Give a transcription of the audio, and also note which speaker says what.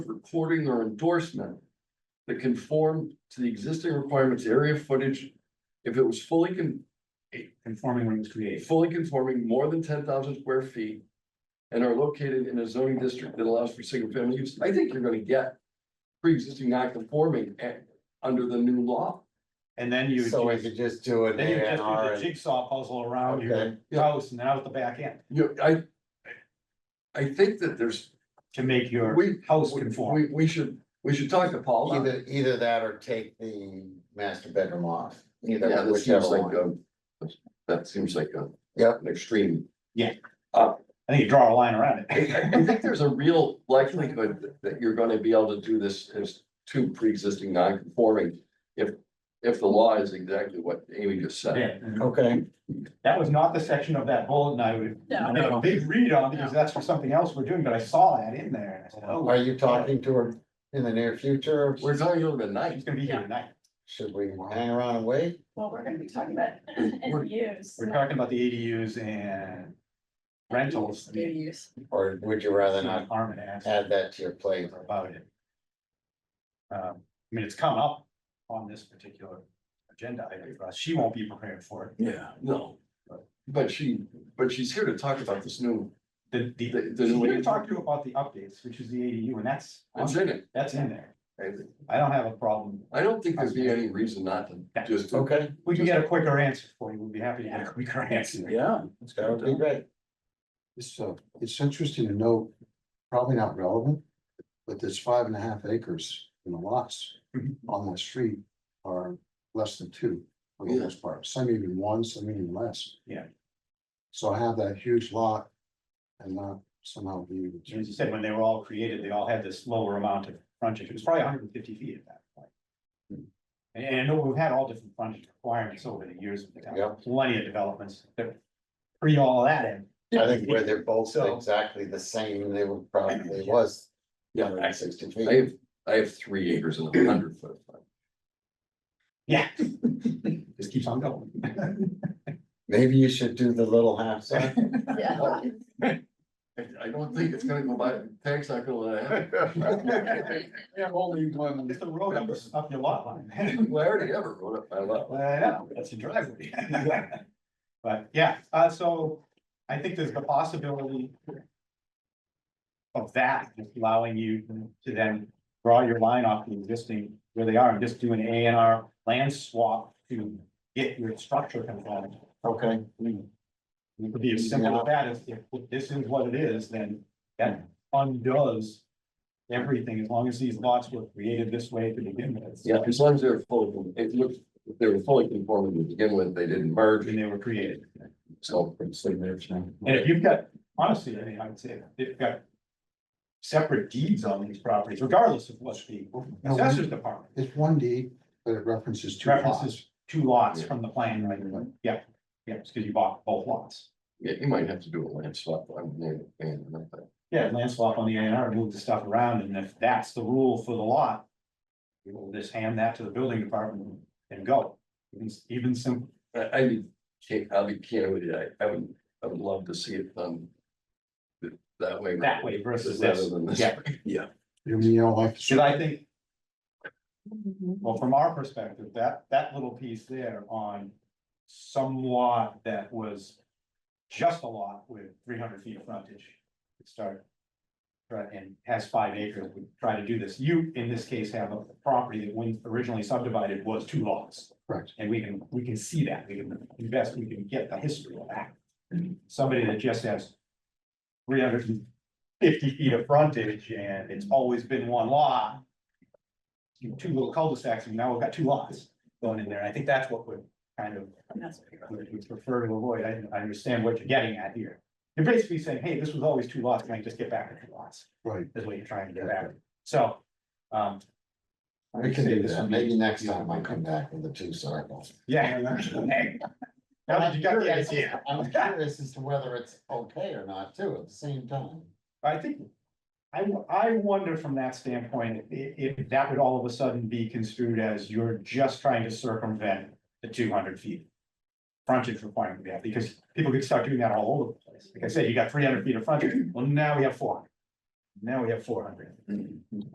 Speaker 1: recording or endorsement that conformed to the existing requirements, area footage, if it was fully con-
Speaker 2: conforming when it was created.
Speaker 1: fully conforming more than ten thousand square feet and are located in a zoning district that allows for single family use, I think you're gonna get pre-existing non-conforming and under the new law.
Speaker 2: And then you,
Speaker 3: So we
Speaker 2: then
Speaker 3: could just do an
Speaker 2: you
Speaker 3: A and
Speaker 2: just
Speaker 3: R
Speaker 2: do the
Speaker 3: and
Speaker 2: jigsaw puzzle around your
Speaker 3: Okay.
Speaker 2: house and out the back end
Speaker 1: You, I, I think that there's,
Speaker 2: to make your
Speaker 1: we,
Speaker 2: house conform.
Speaker 1: we, we should, we should talk to Paul. about it.
Speaker 3: either, either that or take the master bedroom off.
Speaker 1: Yeah,
Speaker 3: Either
Speaker 1: that seems
Speaker 3: whichever
Speaker 1: like
Speaker 3: one.
Speaker 1: a, that seems like a.
Speaker 3: Yep.
Speaker 1: An extreme.
Speaker 2: I think you draw a line around
Speaker 1: I,
Speaker 2: it.
Speaker 1: I- I think there's a real likelihood that- that you're gonna be able to do this as two pre-existing non-conforming. If, if the law is exactly what Amy just said.
Speaker 2: Yeah.
Speaker 3: Okay,
Speaker 2: That was not the section of that bulletin I would, I made a big read on because that's for something else we're doing, but I saw that in there. and I said,
Speaker 3: are
Speaker 2: oh,
Speaker 3: you talking to her in the near future?
Speaker 1: We're talking about the
Speaker 2: She's
Speaker 1: night.
Speaker 2: gonna be here tonight.
Speaker 3: Should we hang around and wait?
Speaker 4: Well, we're gonna be talking about
Speaker 1: We're-
Speaker 4: ADUs.
Speaker 2: We're talking about the ADUs and rentals.
Speaker 4: ADUs.
Speaker 3: Or would you rather not
Speaker 2: Armin asked
Speaker 3: add that to your plate?
Speaker 2: about it. Um, I mean, it's come up on this particular agenda item for us. She won't be prepared for it.
Speaker 1: Yeah. No. But she, but she's here to talk about this new,
Speaker 2: The, the,
Speaker 1: The- the-
Speaker 2: she's gonna talk to you about the updates, which is the ADU, and that's,
Speaker 1: it's in it.
Speaker 2: that's in there.
Speaker 1: I-
Speaker 2: I don't have a problem.
Speaker 1: I don't think there'd be any reason not to just. do-
Speaker 3: Okay,
Speaker 2: We can get a quicker answer for you. We'd be happy to get a quicker answer.
Speaker 1: Yeah.
Speaker 3: that would be great.
Speaker 5: It's, uh, it's interesting to know, probably not relevant, but there's five and a half acres in the lots
Speaker 2: Mhm.
Speaker 5: on that street are less than two, for the most part, some even one, some even less.
Speaker 2: Yeah.
Speaker 5: So I have that huge lot and not somehow be able to.
Speaker 2: As you said, when they were all created, they all had this lower amount of frontage. It was probably hundred and fifty feet at that point. And and I know we've had all different frontage requirements over the years of the
Speaker 3: Yeah.
Speaker 2: town, plenty of developments that pre all that in.
Speaker 3: I think where they're both
Speaker 2: So-
Speaker 3: exactly the same, they would probably was.
Speaker 1: Yeah, I-
Speaker 3: 160
Speaker 1: I
Speaker 3: feet.
Speaker 1: have, I have three acres and a hundred foot.
Speaker 2: Yeah. Just keeps on going.
Speaker 3: Maybe you should do the little half set.
Speaker 4: Yeah.
Speaker 1: I, I don't think it's gonna go by, tax not gonna let it happen.
Speaker 4: Mm-hmm.
Speaker 5: Yeah, only one.
Speaker 2: It's the road up, up your lot line.
Speaker 1: Well, I already ever wrote up my lot.
Speaker 2: Well, I know, uh, that's a driveway. But yeah, uh, so I think there's the possibility of that allowing you to then draw your line off the existing where they are and just do an A and R land swap to get your structure conformed.
Speaker 3: Okay,
Speaker 2: I mean, It could be as simple as that, if, if this is what it is, then that undoes everything, as long as these lots were created this way to begin with.
Speaker 1: Yeah, as long as they're fully, it looked, if they were fully conforming to begin with, they didn't merge,
Speaker 2: When they were created.
Speaker 1: so.
Speaker 2: And if you've got, honestly, I mean, I would say that they've got. Separate deeds on these properties, regardless of what's the assessor's department.
Speaker 5: It's one D, but it references two lots.
Speaker 2: References two lots from the plan, right, yeah, yeah, it's because you bought both lots.
Speaker 1: Yeah, you might have to do a land swap on there, and nothing.
Speaker 2: Yeah, land swap on the A and R, move the stuff around, and if that's the rule for the lot. You will just hand that to the building department and go, even, even simple.
Speaker 1: I, I mean, can't, I'll be candid with you, I, I would, I would love to see it done. th- That way.
Speaker 2: that way versus
Speaker 1: Rather
Speaker 2: this.
Speaker 1: than this.
Speaker 2: Yeah,
Speaker 5: You mean, you know, like.
Speaker 2: should I think, well, from our perspective, that, that little piece there on some lot that was just a lot with three hundred feet of frontage, to start. Right, and has five acres, we try to do this. You, in this case, have a property that when originally subdivided was two lots.
Speaker 5: Correct.
Speaker 2: And we can, we can see that, we can invest, we can get the history of that. Somebody that just has three hundred and fifty feet of frontage and it's always been one lot. You know, two little cul-de-sacs and now we've got two lots going in there. And I think that's what we're kind of, we we prefer to avoid. I, I understand what you're getting at here. You're basically saying, hey, this was always two lots, can I just get back to two lots?
Speaker 5: Right.
Speaker 2: Is what you're trying to get at. So, um. I
Speaker 3: we
Speaker 2: would
Speaker 3: can
Speaker 2: say
Speaker 3: do
Speaker 2: this
Speaker 3: that.
Speaker 2: would be-
Speaker 3: Maybe next time I come back with the two circles.
Speaker 2: Yeah. Now that you got the idea.
Speaker 3: I'm curious as to whether it's okay or not too, at the same time.
Speaker 2: I think, I, wo- I wonder from that standpoint, i- if that would all of a sudden be construed as you're just trying to circumvent the two hundred feet. Frontage requirement, yeah, because people could start doing that all over the place. Like I said, you got three hundred feet of frontage, well, now we have four. Now we have four hundred.